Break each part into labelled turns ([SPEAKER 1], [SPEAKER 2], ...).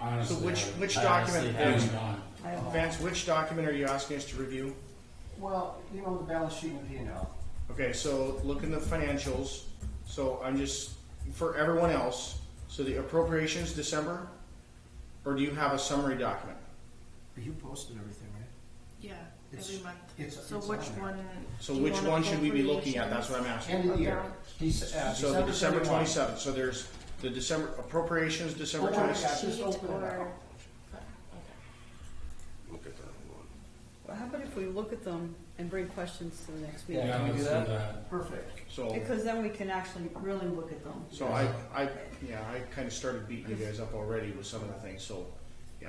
[SPEAKER 1] honestly.
[SPEAKER 2] So which-
[SPEAKER 1] haven't-
[SPEAKER 2] which
[SPEAKER 1] I
[SPEAKER 2] document
[SPEAKER 1] honestly haven't
[SPEAKER 2] is-
[SPEAKER 1] gone.
[SPEAKER 3] I have-
[SPEAKER 2] Vance, which document are you asking us to review?
[SPEAKER 3] Well, you know, the balance sheet and P and L.
[SPEAKER 2] Okay, so look in the financials. So I'm just, for everyone else, so the appropriations December, or do you have a summary document?
[SPEAKER 3] You posted everything, right?
[SPEAKER 4] Yeah,
[SPEAKER 3] It's-
[SPEAKER 4] every month.
[SPEAKER 3] it's-
[SPEAKER 4] So
[SPEAKER 3] it's
[SPEAKER 4] which
[SPEAKER 3] on there.
[SPEAKER 4] one?
[SPEAKER 2] So
[SPEAKER 4] do you
[SPEAKER 2] which
[SPEAKER 4] want
[SPEAKER 2] one should we be looking at? That's
[SPEAKER 4] appropriations?
[SPEAKER 2] what I'm asking.
[SPEAKER 3] End of the year. Dec- uh,
[SPEAKER 2] So the December
[SPEAKER 3] 31.
[SPEAKER 2] twenty-seventh, so there's the December appropriations, December
[SPEAKER 3] Oh, my
[SPEAKER 2] twenty-seventh.
[SPEAKER 3] gosh, just
[SPEAKER 4] Sheet
[SPEAKER 3] open it
[SPEAKER 4] or-
[SPEAKER 3] up.
[SPEAKER 5] Well, how about if we look at them and bring questions to the next meeting?
[SPEAKER 1] Yeah,
[SPEAKER 3] Can we
[SPEAKER 1] let's
[SPEAKER 3] do
[SPEAKER 1] do
[SPEAKER 3] that?
[SPEAKER 1] that.
[SPEAKER 3] Perfect.
[SPEAKER 2] So,
[SPEAKER 5] Because then we can actually really look at them.
[SPEAKER 2] so I, I, yeah, I kinda started beating you guys up already with some of the things, so, yeah.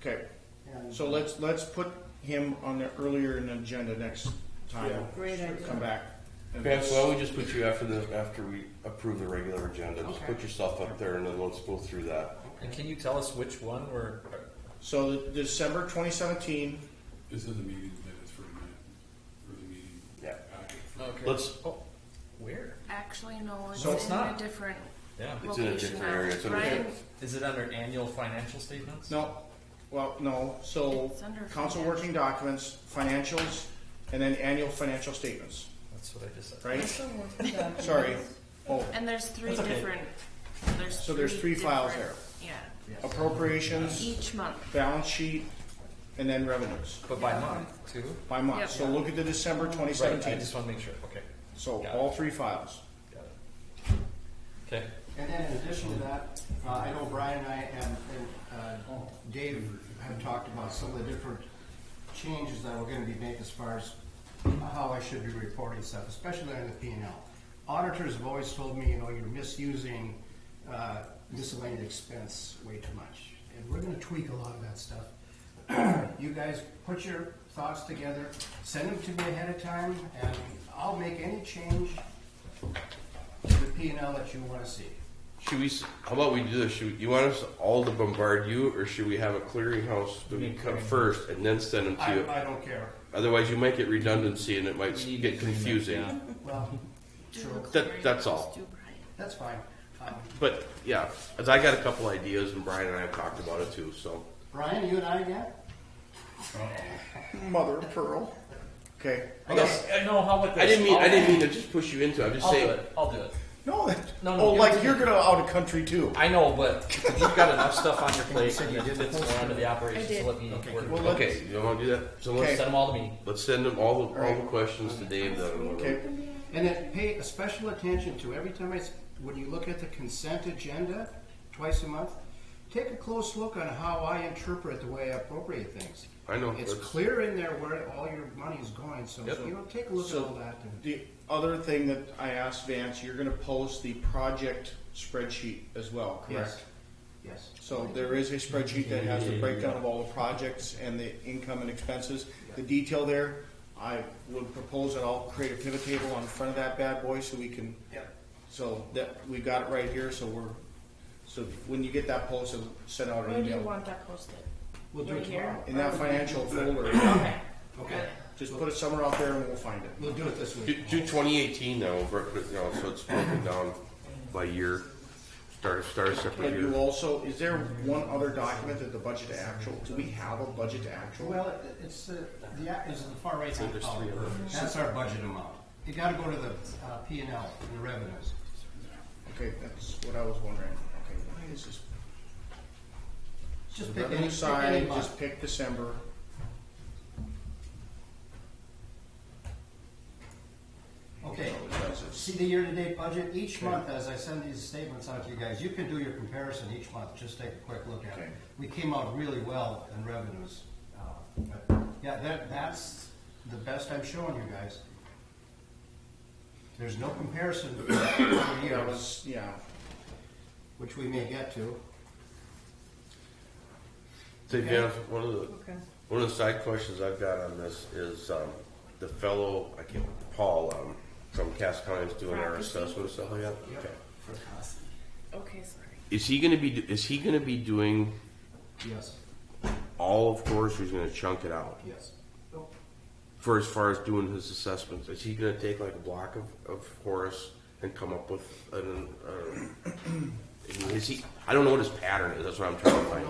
[SPEAKER 2] Okay,
[SPEAKER 3] And
[SPEAKER 2] so let's, let's put him on the earlier in the agenda next time.
[SPEAKER 1] Yeah.
[SPEAKER 5] Great idea.
[SPEAKER 2] Come back. and
[SPEAKER 6] Vance, why don't we just put you after the, after we approve the regular agenda, just
[SPEAKER 3] Okay.
[SPEAKER 6] put yourself up there and then let's go through that.
[SPEAKER 7] And can you tell us which one we're,
[SPEAKER 2] So the December twenty seventeen,
[SPEAKER 1] This is a meeting minutes for a minute, for the meeting.
[SPEAKER 6] Yeah.
[SPEAKER 1] packet.
[SPEAKER 6] Let's,
[SPEAKER 7] oh, where?
[SPEAKER 4] Actually, no, it's
[SPEAKER 2] So
[SPEAKER 4] in
[SPEAKER 2] it's
[SPEAKER 4] a
[SPEAKER 7] not.
[SPEAKER 4] different
[SPEAKER 7] Yeah.
[SPEAKER 6] It's in a
[SPEAKER 4] location
[SPEAKER 6] different
[SPEAKER 4] now.
[SPEAKER 6] area. It's under-
[SPEAKER 4] Ryan,
[SPEAKER 7] Is it under annual financial statements?
[SPEAKER 2] no, well, no, so
[SPEAKER 4] It's under
[SPEAKER 2] council
[SPEAKER 4] financial.
[SPEAKER 2] working documents, financials, and then annual financial statements,
[SPEAKER 7] That's what I just said.
[SPEAKER 2] right? Sorry. Oh,
[SPEAKER 4] and there's three
[SPEAKER 7] That's okay.
[SPEAKER 4] different. There's
[SPEAKER 2] So there's three files
[SPEAKER 4] different- Yeah,
[SPEAKER 2] appropriations,
[SPEAKER 4] each month.
[SPEAKER 2] balance sheet, and then revenues
[SPEAKER 7] But by month, too?
[SPEAKER 2] by month.
[SPEAKER 4] Yep.
[SPEAKER 2] So look at the December twenty
[SPEAKER 7] Right, I
[SPEAKER 2] seventeen.
[SPEAKER 7] just wanna make sure, okay.
[SPEAKER 2] So
[SPEAKER 7] Got it.
[SPEAKER 2] all three files.
[SPEAKER 7] Got it. Okay,
[SPEAKER 3] and then in addition to that, uh, I know Brian and I and, and, uh, Dave have talked about some of the different changes that we're gonna be making as far as how I should be reporting stuff, especially on the P and L. Auditors have always told me, you know, you're misusing, uh, miscellaneous expense way too much. And we're gonna tweak a lot of that stuff. you guys put your thoughts together, send them to me ahead of time, and I'll make any change to the P and L that you wanna see.
[SPEAKER 6] should we, s- how about we do this, should, we- you want us all to bombard you, or should we have a clearinghouse to come first and then send them to
[SPEAKER 3] I,
[SPEAKER 6] you?
[SPEAKER 3] I don't care.
[SPEAKER 6] Otherwise, you might get redundancy and it might s-
[SPEAKER 7] We need
[SPEAKER 6] get
[SPEAKER 7] to clean that
[SPEAKER 6] confusing,
[SPEAKER 7] down.
[SPEAKER 3] Well,
[SPEAKER 4] Do
[SPEAKER 3] Sure.
[SPEAKER 4] the
[SPEAKER 6] That- that's
[SPEAKER 4] clearinghouse,
[SPEAKER 6] all.
[SPEAKER 4] do Brian.
[SPEAKER 3] that's fine. Um,
[SPEAKER 6] but, yeah, as I got a couple ideas and Brian and I have talked about it too, so.
[SPEAKER 3] Brian, you and I yet?
[SPEAKER 2] Mother of pearl. Okay.
[SPEAKER 6] I guess,
[SPEAKER 7] no, how about this?
[SPEAKER 6] I didn't mean, I
[SPEAKER 7] I'll-
[SPEAKER 6] didn't mean to just push you into it, I'm just
[SPEAKER 7] I'll do
[SPEAKER 6] saying,
[SPEAKER 7] it, I'll do it.
[SPEAKER 2] No, that,
[SPEAKER 7] No, no,
[SPEAKER 2] oh,
[SPEAKER 7] give it
[SPEAKER 2] like
[SPEAKER 7] to
[SPEAKER 2] you're
[SPEAKER 7] me.
[SPEAKER 2] gonna out of country too.
[SPEAKER 7] I know, but you've got enough stuff on your plate, and it fits more under the
[SPEAKER 4] I
[SPEAKER 7] operations,
[SPEAKER 4] did.
[SPEAKER 7] so let me work.
[SPEAKER 2] well, let's-
[SPEAKER 6] okay, you wanna do that? So let's
[SPEAKER 7] Send them all to me.
[SPEAKER 6] Let's send them all the, all the
[SPEAKER 2] Alright.
[SPEAKER 6] questions to Dave then.
[SPEAKER 2] Okay.
[SPEAKER 3] And then pay a special attention to every time I, s- when you look at the consent agenda twice a month, take a close look on how I interpret the way I appropriate things.
[SPEAKER 6] I know.
[SPEAKER 3] It's
[SPEAKER 6] that's-
[SPEAKER 3] clear in there where all your money is going, so,
[SPEAKER 6] Yep.
[SPEAKER 3] you know, take a look at
[SPEAKER 2] So-
[SPEAKER 3] all that. and-
[SPEAKER 2] The other thing that I asked Vance, you're gonna post the project spreadsheet as well, correct?
[SPEAKER 3] Yes. Yes.
[SPEAKER 2] So there is a spreadsheet that has the breakdown of all the projects and the income and expenses. The detail there, I would propose that I'll create a pivot table on the front of that bad boy so we can,
[SPEAKER 3] Yep.
[SPEAKER 2] so that, we got it right here, so we're, so when you get that posted, send out
[SPEAKER 4] Where
[SPEAKER 2] an
[SPEAKER 4] do you
[SPEAKER 2] email.
[SPEAKER 4] want that posted?
[SPEAKER 3] We'll do
[SPEAKER 4] Right
[SPEAKER 3] it tomorrow.
[SPEAKER 2] In that financial folder,
[SPEAKER 4] Okay.
[SPEAKER 3] Okay.
[SPEAKER 2] just put it somewhere out there and we'll find it.
[SPEAKER 3] We'll do it this
[SPEAKER 6] Do,
[SPEAKER 3] week.
[SPEAKER 6] do 2018 now, bro- you know, so it's broken down by year. Start, start a separate
[SPEAKER 2] But you
[SPEAKER 6] year.
[SPEAKER 2] also, is there one other document that the budget to actual, do we have a budget to actual?
[SPEAKER 3] Well, it- it's, uh, the, act is in the far right hand column. That's our budget amount. You gotta go to the uh, P and L, the revenues.
[SPEAKER 2] Okay, that's what I was wondering. Okay, why is this?
[SPEAKER 3] Just
[SPEAKER 2] The
[SPEAKER 3] pick any,
[SPEAKER 2] revenue
[SPEAKER 3] pick any
[SPEAKER 2] side,
[SPEAKER 3] month.
[SPEAKER 2] just pick December.
[SPEAKER 3] Okay,
[SPEAKER 2] It does this.
[SPEAKER 3] see the year-to-date budget, each month, as I send these statements out to you guys, you can do your comparison each month, just take a quick look at it.
[SPEAKER 2] Okay.
[SPEAKER 3] We came out really well in revenues. uh, but, Yeah, that, that's the best I'm showing you guys. There's no comparison for
[SPEAKER 2] That
[SPEAKER 3] years,
[SPEAKER 2] was, yeah,
[SPEAKER 3] which we may get to.
[SPEAKER 6] So Jeff, one of the
[SPEAKER 5] Okay.
[SPEAKER 6] one of the side questions I've got on this is um, the fellow I can't Paul um, from Cass County is doing our assessment stuff. Oh, yeah. Okay.
[SPEAKER 4] Okay, sorry.
[SPEAKER 6] Is he going to be? Is he going to be doing
[SPEAKER 3] Yes,
[SPEAKER 6] all of course? Or he's going to chunk it out
[SPEAKER 3] yes.
[SPEAKER 6] for as far as doing his assessments. Is he going to take like a block of, of Horace and come up with an? Uh, is he? I don't know what his pattern is. That's what I'm trying to find.